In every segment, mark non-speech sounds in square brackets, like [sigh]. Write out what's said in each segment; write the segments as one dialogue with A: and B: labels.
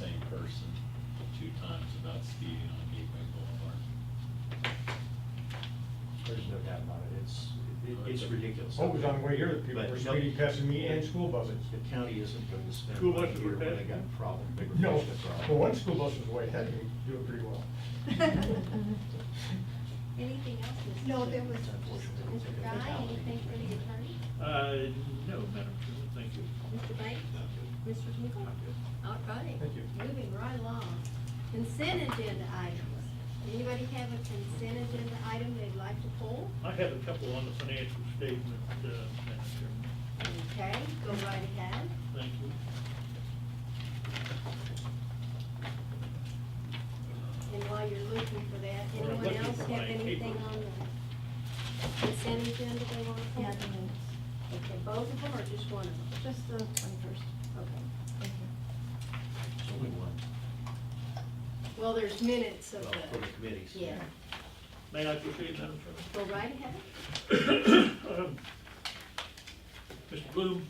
A: person two times about speeding on Gateway Boulevard.
B: There's no doubt about it, it's, it- it's ridiculous.
C: Oh, it was on the way here, that people
B: But
C: were
B: no-
C: speeding past me and school buses.
B: The county isn't going to spend
D: School
B: money
D: buses
B: here
D: were
B: when
D: bad.
B: they got a problem. They were
C: No,
B: fixing the problem.
C: well, one school bus was way ahead, and we do it pretty well.
E: Anything else? Mr.
F: No,
E: Chair?
F: there was,
B: Unfortunately, it's a
E: Mr.
B: good
E: Guy,
B: technology.
E: anything for the attorney?
D: Uh, no, Madam Chairman, thank you.
E: Mr. Banks? Mr. Smigel?
D: I'm good.
E: All right.
C: Thank you.
E: Moving right along. Consent agenda items. Anybody have a consent agenda item they'd like to pull?
D: I have a couple on the financial statement, uh, Madam Chairman.
E: Okay, go right ahead.
D: Thank you.
E: And while you're looking for that,
D: Well, I'm
E: anyone
D: looking
E: else
D: for
E: have
D: my
E: anything
D: paper.
E: on the consent agenda they want to
G: Uh,
E: pull?
F: Nothing
E: Okay, both of them or just one of them?
F: Just the twenty-first.
E: Okay.
F: Thank you.
B: It's only one.
E: Well, there's minutes of
B: Well,
E: the.
B: Oh, for the committees.
E: Yeah,
D: May I proceed, Madam Chairman?
E: go right ahead.
D: [coughs] Um, Mr. Bloom,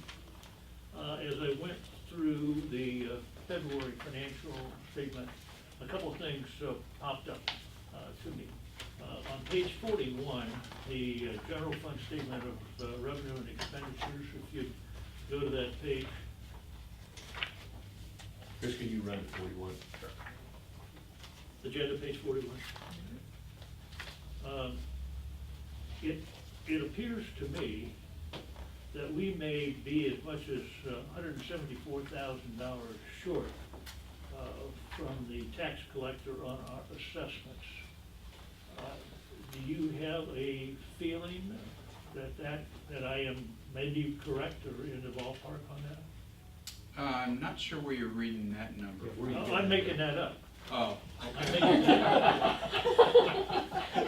D: uh, as I went through the uh, February financial statement, a couple of things uh, popped up uh, to me. Uh, On page forty-one, the uh, general fund statement of uh, revenue and expenditures, if you go to that page,
B: Chris, can you run it forty-one?
D: agenda page forty-one. Um, It, it appears to me that we may be as much as hundred and seventy-four thousand dollars short uh, from the tax collector on our assessments. Uh, Do you have a feeling that that, that I am maybe correct or in the ballpark on that?
G: Uh, I'm not sure where you're reading that number.
B: If we're-
D: I'm making that up.
G: Oh,
D: I think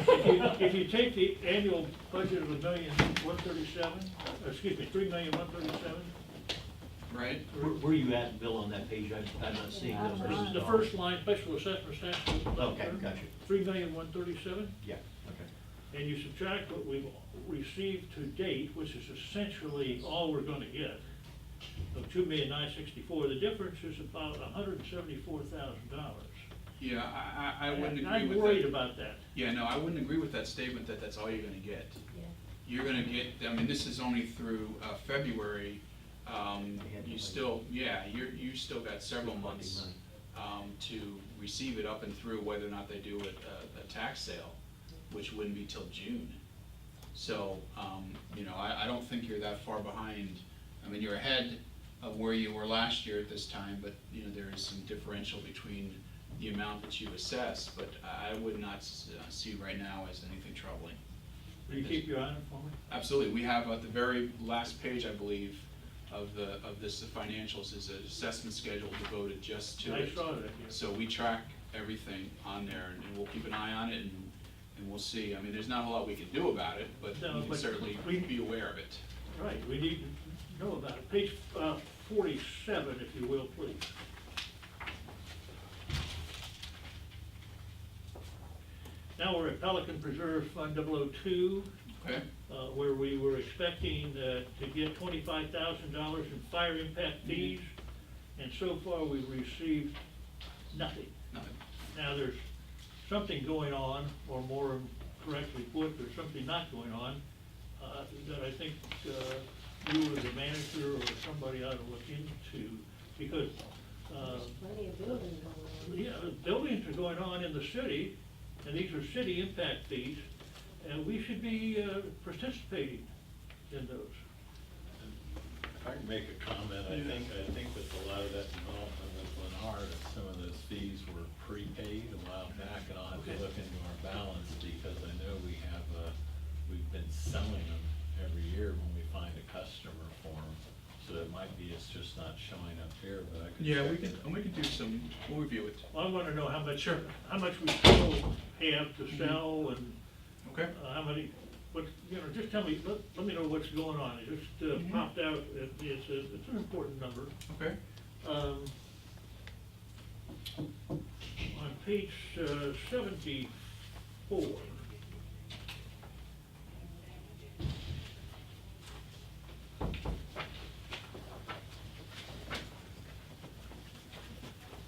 D: If you- if you take the annual budget of a million, one thirty-seven, excuse me, three million, one thirty-seven,
G: oh, right?
B: Where, where are you at, Bill, on that page? I, I'm not seeing those.
D: this is the first line, special assessment tax.
B: Okay, gotcha.
D: Three million, one thirty-seven,
B: Yeah, okay.
D: and you subtract what we've received to date, which is essentially all we're gonna get, of two million, nine sixty-four, the difference is about hundred and seventy-four thousand dollars.
G: Yeah, I, I, I wouldn't agree with that.
D: I'm worried about that.
G: Yeah, no, I wouldn't agree with that statement that that's all you're gonna get. You're gonna get, I mean, this is only through, uh, February, um,
B: They had to
G: you
B: wait.
G: still, yeah, you're, you still got several
B: Good fucking
G: months,
B: money.
G: um, to receive it up and through whether or not they do a, a, a tax sale, which wouldn't be till June. So, um, you know, I, I don't think you're that far behind. I mean, you're ahead of where you were last year at this time, but, you know, there is some differential between the amount that you assess, but I I would not s- uh, see right now as anything troubling.
D: Will you keep your eye on it for me?
G: Absolutely, we have at the very last page, I believe, of the, of this, the financials is an assessment schedule devoted just to
D: I
G: it.
D: saw that, yeah.
G: So we track everything on there, and- and we'll keep an eye on it, and, and we'll see. I mean, there's not a lot we can do about it, but
D: No,
G: we can
D: but
G: certainly
D: we-
G: be aware of it.
D: Right, we need to know about it. Page uh, forty-seven, if you will, please. Now we're at Pelican Preserve Fund 002,
G: Okay?
D: uh, where we were expecting uh, to get twenty-five thousand dollars in fire impact fees, and so far we've received nothing.
G: No,
D: Now, there's something going on, or more correctly put, there's something not going on, uh, that I think uh, you as a manager or somebody ought to look into, because, uh,
E: Plenty of building going on.
D: yeah, buildings are going on in the city, and these are city impact fees, and we should be uh, participating in those.
A: If I can make a comment, I think, I think that a lot of that involvement with Lennar, that some of those fees were prepaid a while back, and I'll have to
D: Okay.
A: look into our balance, because I know we have, uh, we've been selling them every year when we find a customer for them, so it might be it's just not showing up here, but I could.
G: Yeah, we
A: check
G: can,
A: it.
G: and we can do some, we'll review it.
D: Well, I want to know how much,
G: Sure.
D: how much we still have to sell and
G: Okay?
D: Uh, How many, what, you know, just tell me, let, let me know what's going on, it just uh,
G: Mhm.
D: popped out, It- it's, a- it's an important number.
G: Okay?
D: Um, On page uh, seventy-four,